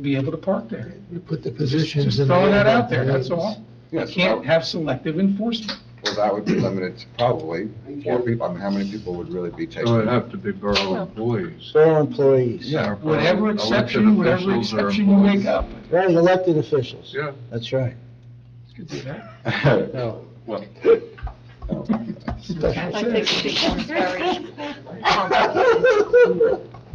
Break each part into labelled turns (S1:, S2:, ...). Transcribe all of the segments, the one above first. S1: be able to park there.
S2: You put the positions in.
S1: Just
S2: the
S1: throwing that
S2: order
S1: out there, that's
S2: that is.
S1: all. You
S3: Yes,
S1: can't have selective enforcement.
S3: well, that would be limited to probably four people, I mean, how many people would really be
S4: It would
S3: taking?
S4: have to be borough employees.
S2: Borough employees.
S4: Yeah.
S3: Oh,
S1: Whatever
S4: elected
S1: exception, whatever
S4: officials or
S1: exception you make
S4: employees.
S1: up.
S2: Right, elected officials.
S4: Yeah.
S2: That's right.
S1: You could do that.
S2: No.
S5: I think it becomes very,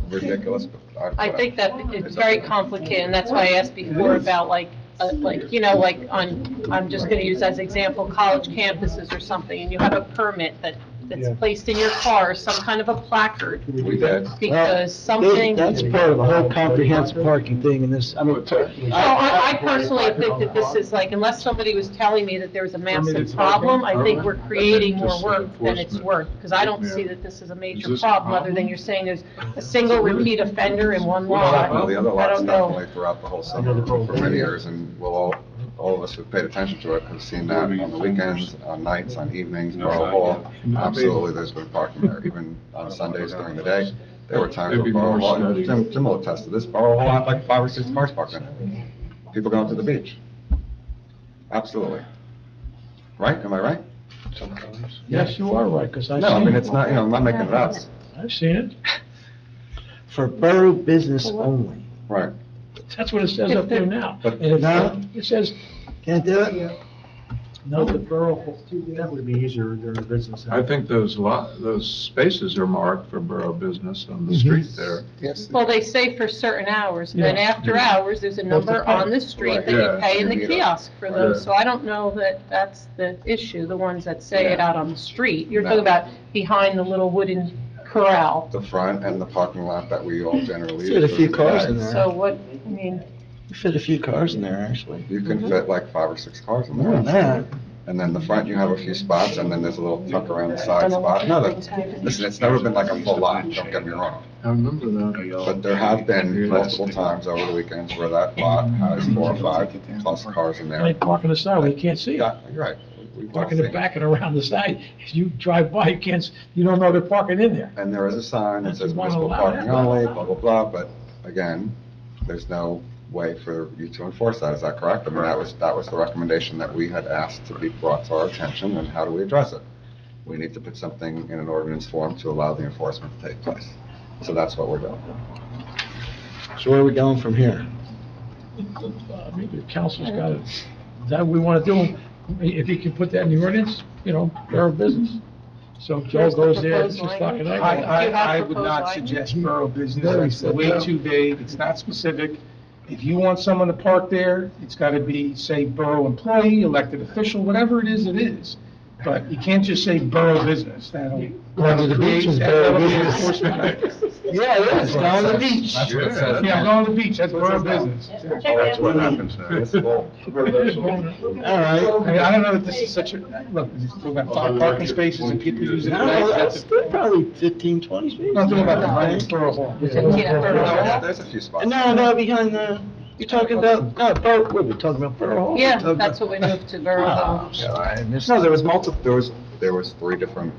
S3: Ridiculous. uh,
S5: I think that it's very complicated, and that's why I asked before about like, uh, like, you know, like on, I'm just gonna use as example, college campuses or something, and you have a permit that, that's
S2: Yeah.
S5: placed in your car, some kind of a placard,
S3: We did.
S5: because something.
S2: That's part of the whole comprehensive parking thing in this, I mean,
S5: Oh, I, I personally think that this is like, unless somebody was telling me that there was a massive problem, I think we're creating more work than it's worth, because I don't see that this is a major problem, other than you're saying there's a single repeat offender in one
S3: Well,
S5: lot.
S3: definitely, the other
S5: I
S3: lots
S5: don't know.
S3: definitely throughout the whole summer for many years, and we'll all, all of us who've paid attention to it have seen that on the weekends, on nights, on evenings, Borough Hall. Absolutely, there's been parking there, even on Sundays during the day. There were times where
S4: Maybe
S3: Borough
S4: more
S3: Hall,
S4: study.
S3: sim- similar test to this, Borough Hall had like five or six cars parked in it. People going to the beach. Absolutely. Right? Am I right?
S2: yes, you are right, because I've
S3: No, I mean,
S2: seen it
S3: it's not, you know, I'm not making it up.
S1: I've seen it.
S2: for borough business only.
S3: Right.
S1: That's what it says up there now.
S3: But-
S1: And it's
S2: No.
S1: it says,
S2: Can't do it?
S1: no, the borough,
S6: That would be easier during the business.
S4: I think those lot, those spaces are marked for borough business on the street there.
S3: Yes.
S5: Well, they say for certain hours, and then
S1: Yeah.
S5: after hours, there's a number on the street that you
S4: Right.
S5: pay in the
S3: Yeah.
S5: kiosk for those,
S4: Yeah.
S5: so I don't know that that's the issue, the ones that say it
S3: Yeah.
S5: out on the street. You're
S3: No.
S5: talking about behind the little wooden corral,
S3: The front and the parking lot that we all generally use.
S2: Fit a few
S3: during the
S2: cars
S3: day.
S2: in there.
S5: so what, I mean.
S2: You Fit a few cars in there, actually.
S3: You can fit like five or six cars in
S2: Mm-hmm. More than
S3: there.
S2: that.
S3: And then the front, you have a few spots, and then there's a little tuck around the side spot. No, that- listen, it's never been like a full lot, don't get me wrong.
S4: I remember that.
S3: But there have been multiple times over the weekends where that lot has four or five plus cars in there.
S1: like parking the side, where you can't see it.
S3: Yeah, you're right. We- we've all
S1: Parking
S3: seen
S1: it
S3: it.
S1: back and around the side, if you drive by, you can't, s- you don't know they're parking in there.
S3: And there is a sign that
S1: That's
S3: says
S1: why I
S3: municipal
S1: allow
S3: parking
S1: that.
S3: only, blah, blah, blah, but again, there's no way for you to enforce that, is that correct? I mean, that was, that was the recommendation that we had asked to be brought to our attention, and how do we address it? We need to put something in an ordinance form to allow the enforcement to take place. So that's what we're doing.
S2: So where are we going from here?
S1: Uh, Maybe the council's got it, Is that what we want to do, if you can put that in the ordinance, you know, borough business. So if Joe
S5: Here's the
S1: goes there, it's
S5: proposed
S1: just like
S5: language.
S1: night.
S5: I-
S7: I,
S5: Do you have
S7: I, I would not
S5: proposed
S7: suggest borough business,
S2: Very
S7: that's
S2: said
S7: way
S2: no.
S7: too vague, it's not specific. If you want someone to park there, it's gotta be, say, borough employee, elected official, whatever it is, it is. But you can't just say borough business, that'll.
S2: Going to the beach is borough
S7: that'll be
S2: business.
S7: enforcement.
S2: Yeah, it is, down the beach.
S3: That's what it says.
S7: Yeah, I'm going to the beach, that's borough business.
S3: That's what happens now. It's all-
S2: All
S7: I mean,
S2: right.
S7: I don't know that this is such a, look, we're talking about five parking spaces and people using it,
S2: I don't know,
S7: that's,
S2: that's probably 15, 20 feet.
S7: nothing about the Lions Borough Hall.
S3: Yeah,
S5: Yeah,
S3: There's a few spots.
S2: No, no, behind the, you're talking about, no, Borough, what we're talking about, Borough Hall? We're talking
S5: that's what
S2: about-
S5: we moved to Borough Hall.
S3: Yeah, I missed- No, there was multiple, there was, there was three different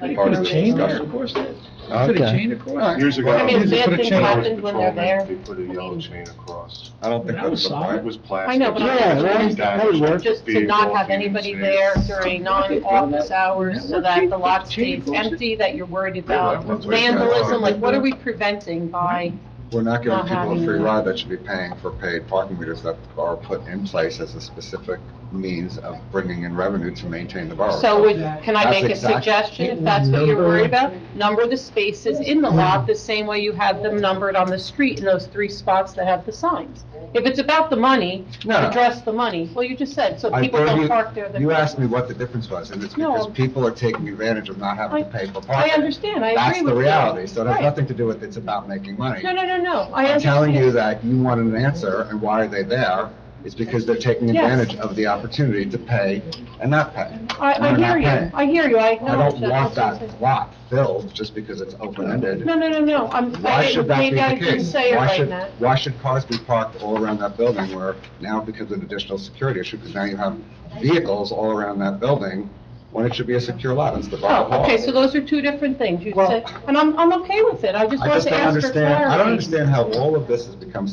S1: They
S3: part
S1: put
S3: of
S1: a
S3: this
S1: chain there,
S3: discussion.
S1: of course. They Put a
S2: Okay.
S1: chain across.
S8: Years ago.
S5: I mean,
S1: They
S5: bad
S1: put a
S5: things
S1: chain-
S5: happen when they're there.
S8: They put a yellow chain across.
S3: I don't think
S1: That was
S3: that was the
S1: solid.
S3: point.
S8: It was plastic.
S5: I know, but
S2: Yeah, that- that would work.
S5: Just to not have anybody there during non-office hours, so that the lot stays empty, that you're worried about vandalism, like, what are we preventing by?
S3: We're not giving
S5: Not
S3: people a
S5: having
S3: free
S5: that.
S3: ride that should be paying for paid parking meters that are put in place as a specific means of bringing in revenue to maintain the borough.
S5: So would, can I
S3: That's
S5: make a
S3: exact-
S5: suggestion, if that's what you're worried about? Number the spaces in the lot the same way you have them numbered on the street in those three spots that have the signs. If it's about the money,
S3: No.
S5: address the money, well, you just said, so
S3: I
S5: people
S3: heard
S5: don't
S3: you-
S5: park there. that-
S3: You asked me what the difference was, and it's
S5: No.
S3: because people are taking advantage of not having to pay for
S5: I
S3: parking.
S5: understand, I
S3: That's
S5: agree with you.
S3: the reality, so it has
S5: Right.
S3: nothing to do with it's about making money.
S5: No, no, no, no, I
S3: I'm telling you
S5: understand.
S3: that you wanted an answer, and why are they there? It's because they're taking
S5: Yes.
S3: advantage of the opportunity to pay and not pay.
S5: I, I
S3: We're not
S5: hear you,
S3: paying.
S5: I hear you, I
S3: I
S5: acknowledge
S3: don't
S5: that.
S3: want
S5: That's what I'm
S3: that lot filled just because it's open-ended.
S5: saying. No, no, no, no, I'm,
S3: Why
S5: I
S3: should
S5: didn't,
S3: that be
S5: maybe I
S3: the
S5: didn't
S3: case?
S5: say it
S3: Why
S5: right,
S3: should,
S5: Matt.
S3: why should cars be parked all around that building where now because of additional security issue, because now you have vehicles all around that building when it should be a secure lot, it's the bottom
S5: Oh,
S3: wall.
S5: okay, so those are two different things, you
S3: Well-
S5: said, and I'm, I'm okay with it, I just
S3: I
S5: wanted
S3: just
S5: to
S3: don't
S5: ask for clarity.
S3: understand, I don't understand how all of this has become